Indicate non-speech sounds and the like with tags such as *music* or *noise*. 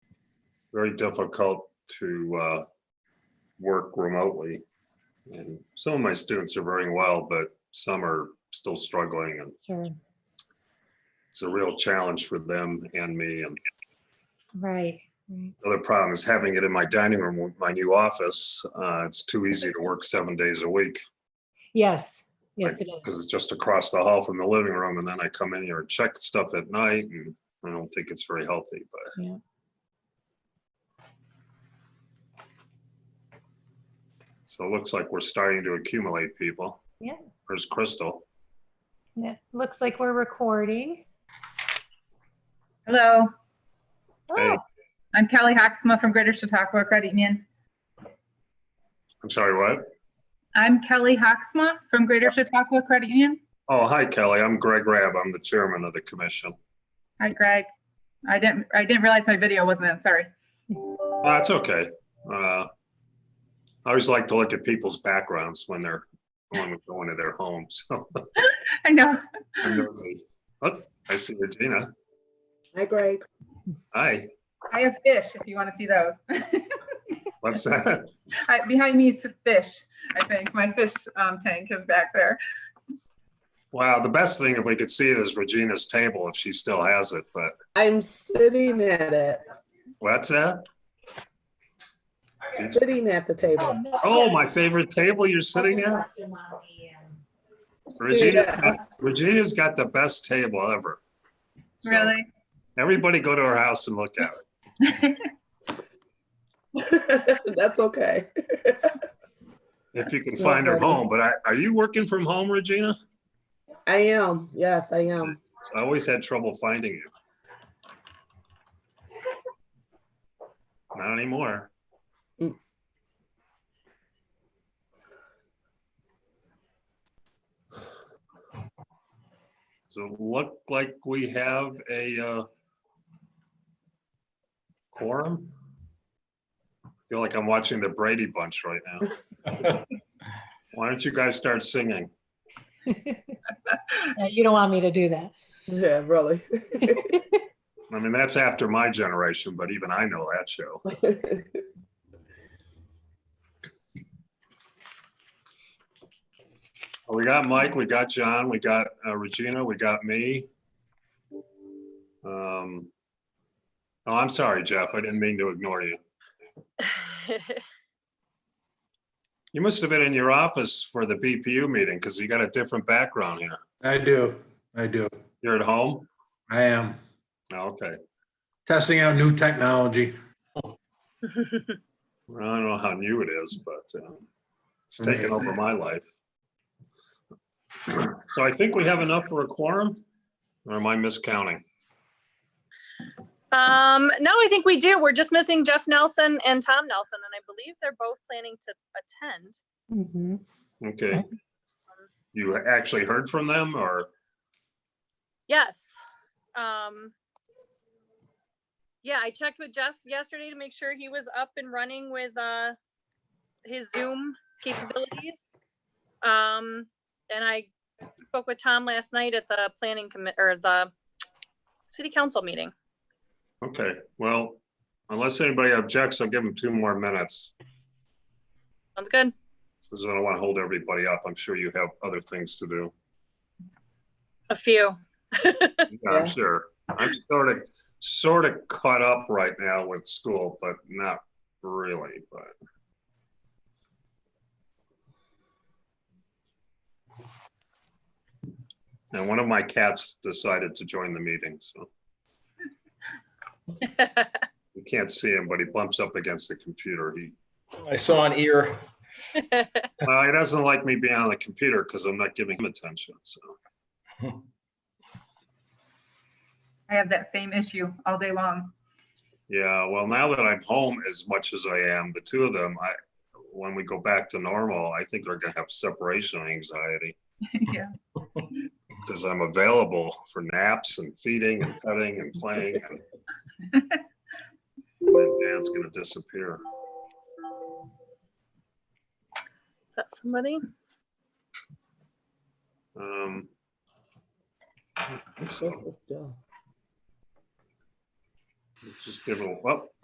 very difficult to uh, work remotely. And some of my students are very well, but some are still struggling and Sure. it's a real challenge for them and me. And Right. Right. another problem is having it in my dining room, with my new office. Uh, It's too easy to work seven days a week Yes. Yes, it is. because it's just across the hall from the living room. And then I come in here and check stuff at night and I don't think it's very healthy, but so it looks like we're starting to accumulate people. Yeah. There's Crystal. Yeah. Looks like we're recording. Hello, Hey, Oh, I'm Kelly Haxma from Greater Chautauqua Credit Union. I'm sorry, what? I'm Kelly Haxma from Greater Chautauqua Credit Union. Oh, hi Kelly. I'm Greg Rabb. I'm the chairman of the commission. Hi Greg. I didn't, I didn't realize my video wasn't in, sorry. *laughs* Uh, That's okay. Uh, I always like to look at people's backgrounds when they're, when we go into their homes. *laughs* So I know. I'm *laughs* nosy. Oh, I see Regina. Hi, Greg. Hi, I have fish if you want to see those. *laughs* what's that? I- Behind me is fish, I think. My fish um, tank is back there. Wow, the best thing if we could see it is Regina's table, if she still has it, but I'm sitting at it, what's that? sitting at the table. Um. Oh, my favorite table you're sitting at? Regina, Yeah. Regina's got the best table ever. So Really? Everybody go to her house and look at it. *laughs* That's okay. If you can find her home, but I, are you working from home, Regina? I am. Yes, I am. I always had trouble finding you. Not anymore. Mm. So it look like we have a uh, quorum. Feel like I'm watching the Brady Bunch right now. Why don't you guys start singing? Yeah, You don't want me to do that. Yeah, really. *laughs* I mean, that's after my generation, but even I know that show. Well, We got Mike, we got John, we got uh, Regina, we got me. Um, Oh, I'm sorry, Jeff, I didn't mean to ignore you. You must have been in your office for the BPU meeting because you got a different background here. I do. I do. You're at home? I am Oh, Okay, testing out new technology. Well, I don't know how new it is, but um, it's taken over my life. *clears throat* So I think we have enough for a quorum, or am I miscounting? Um, no, I think we do. We're just missing Jeff Nelson and Tom Nelson, and I believe they're both planning to attend. Mhm. Okay. You actually heard from them or? Yes. Um, yeah, I checked with Jeff yesterday to make sure he was up and running with, uh, his Zoom capabilities. Um, and I spoke with Tom last night at the planning commit, or the city council meeting. Okay, well, unless anybody objects, I'll give them two more minutes. Sounds good. Because I don't want to hold everybody up. I'm sure you have other things to do. A few. Yeah, I'm Yeah. sure. I'm sort of, sort of caught up right now with school, but not really, but. And one of my cats decided to join the meeting, so you can't see him, but he bumps up against the computer. He I saw an ear. Uh, he doesn't like me being on the computer because I'm not giving him attention. So, I have that same issue all day long. *laughs* yeah, well, now that I'm home as much as I am, the two of them, I, when we go back to normal, I think they're going to have separation anxiety Yeah. because I'm available for naps and feeding and petting and playing. And my dad's going to disappear. Is that somebody? Um, I think so Still. let's just give it a, oh, well,